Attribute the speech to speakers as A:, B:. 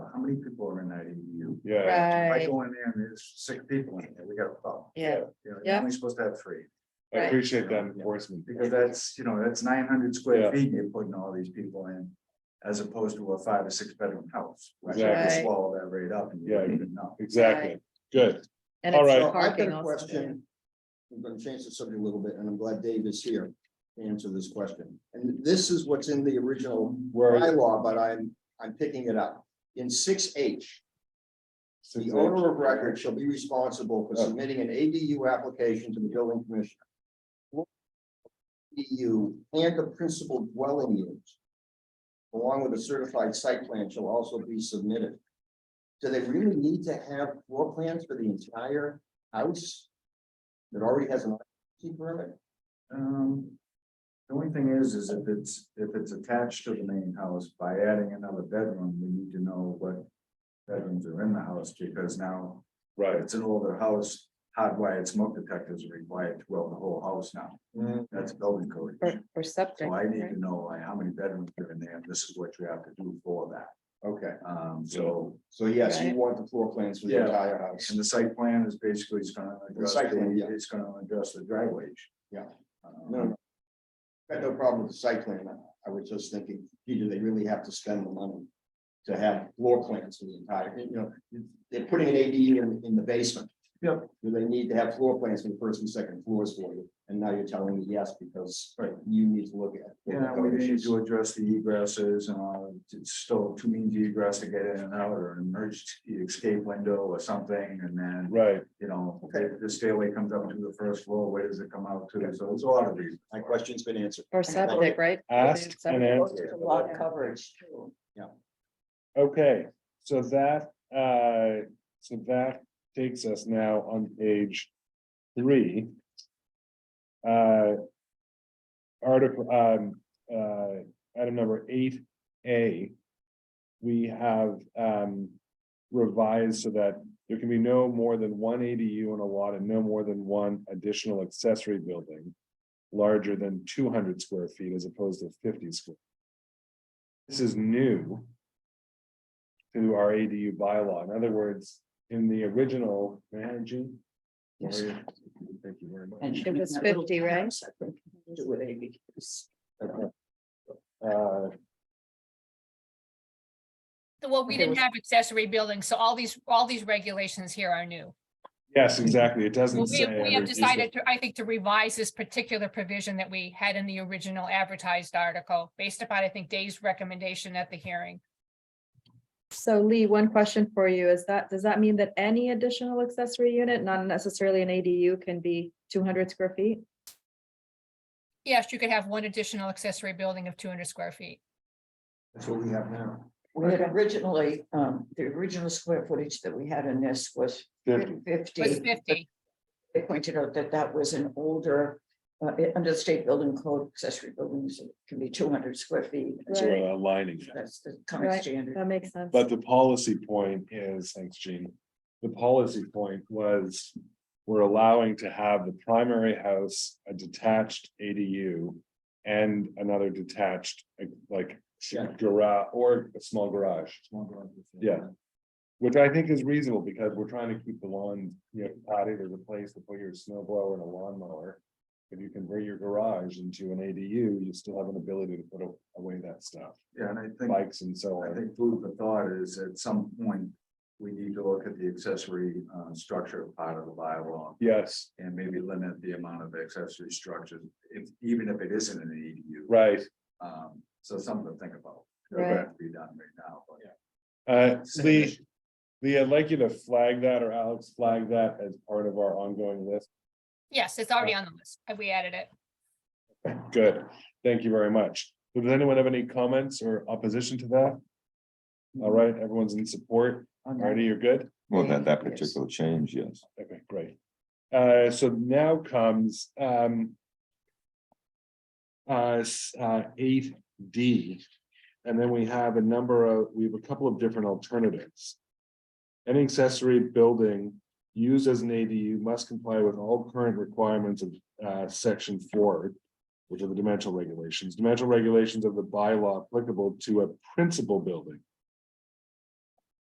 A: many people are in that E ADU.
B: Yeah,
A: If I
C: Right,
A: go in there and there's six people in there, we got a problem.
C: yeah,
A: You know, you're
C: Yeah.
A: only supposed to have three,
B: I
C: Right.
B: appreciate that enforcement.
A: because that's, you know, that's nine hundred square
B: Yeah.
A: feet you're putting all these people in. As opposed to a five or six bedroom house. which you
B: Exactly.
C: Right.
A: Swallow that right up and you
B: Yeah.
A: don't even know.
B: Exactly, good.
C: and
B: All
C: it's
B: right.
C: the
D: So I've got
C: parking
D: a
C: also. yeah.
D: question. I'm gonna change the subject a little bit, and I'm glad Dave is here to answer this question. And this is what's in the original
B: Where
D: bylaw, but I'm, I'm picking it up. In six H,
B: six,
D: the
B: eight,
D: owner of record shall be responsible for
B: Oh.
D: submitting an ADU application to the building commissioner. ADU and the principal dwelling unit. Along with a certified site plan shall also be submitted. Do they really need to have floor plans for the entire house? That already has an occupancy permit?
A: Um, the only thing is, is if it's, if it's attached to the main house, by adding another bedroom, we need to know what. Bedrooms are in the house, because now, if
B: Right,
A: it's an older house, hardwired smoke detectors are required to weld the whole house now,
D: Mm-hmm.
A: that's building code.
C: Or, or septic.
A: So I need
C: right?
A: to know like how many bedrooms are in there, and this is what you have to do for that,
D: Okay,
A: um, so,
D: so yes, you
C: Right.
D: want the floor plans for the
A: Yeah.
D: entire house.
A: and the site plan is basically, it's gonna address,
D: site plan,
A: the-
D: yeah.
A: it's gonna address the driveways.
D: Yeah.
A: Um,
D: No, no. Got no problem with the site plan. I- I was just thinking, gee, do they really have to spend the money? To have floor plans for the entire, you know, they're putting an ADU in, in the basement.
A: Yep.
D: Do they need to have floor plans for the first and second floors for you? And now you're telling me yes, because you need to look at.
A: Yeah, we need to address the egresses, uh, it's still two means of egress to get in and out, or an emergency escape window or something, and then,
B: right,
A: you know, the the stairway comes up to the first floor, where does it come out to, so it's a lot of these.
D: My question's been answered.
C: Or septic, right?
B: asked and answered.
C: A lot of coverage.
B: Okay, so that, uh, so that takes us now on page three. Uh. Article, um, uh, item number eight A. We have, um, revised so that there can be no more than one ADU in a lot and no more than one additional accessory building. Larger than two hundred square feet as opposed to fifty square. This is new to our ADU bylaw. In other words, in the original, man, Jean? Yes. Thank you very much.
C: It was fifty, right?
B: Uh,
E: Well, we
C: Okay,
E: didn't
C: was-
E: have accessory buildings, so all these, all these regulations here are new.
B: yes, exactly. It
E: Well,
B: doesn't
E: We
B: say.
E: we
B: every-
E: have decided to, I think, to revise this particular provision that we had in the original advertised article, based upon, I think, Dave's recommendation at the hearing.
C: So Lee, one question for you is that, does that mean that any additional accessory unit, not necessarily an ADU, can be two hundred square feet?
E: Yes, you could have one additional accessory building of two hundred square feet.
D: That's what we have now.
F: We had originally, um, the original square footage that we had in this was
B: Fifty.
E: It Was
F: fifty.
E: fifty,
F: They pointed out that that was an older, uh, it- under the state building code, accessory buildings can be two hundred square feet.
B: So
C: Right.
B: we're aligning that.
F: That's the current
C: Right.
F: standard.
C: That makes sense.
B: But the policy point is, thanks, Gene. The policy point was, we're allowing to have the primary house, a detached ADU. And another detached, like
D: Yeah.
B: garage or a small garage. Yeah. Which I think is reasonable because we're trying to keep the lawn, you know, potted as a place to put your snow blower and a lawnmower. If you convert your garage into an ADU, you still have an ability to put a- away that stuff,
A: Yeah, and I think,
B: bikes and so
A: I
B: on.
A: think food for thought is at some point, we need to look at the accessory, uh, structure part of the bylaw.
B: Yes,
A: And maybe limit the amount of accessory structures, if, even if it isn't an ADU.
B: right.
A: Um, so something to think about.
C: Right.
A: Doesn't have to Be done right now, but.
B: Uh,
A: Same
B: Lee,
A: issue.
B: Lee, I'd like you to flag that or Alex flag that as part of our ongoing list.
E: yes, it's already on the list, and we added it.
B: Good, thank you very much. Does anyone have any comments or opposition to that? All right, everyone's in support. Artie, you're good?
G: Well, that, that
F: Yes.
G: particular change, yes.
B: Okay, great. Uh, so now comes, um. Uh, s- uh, eight D, and then we have a number of, we have a couple of different alternatives. Any accessory building used as an ADU must comply with all current requirements of, uh, section four. Which are the dimensional regulations, dimensional regulations of the bylaw applicable to a principal building.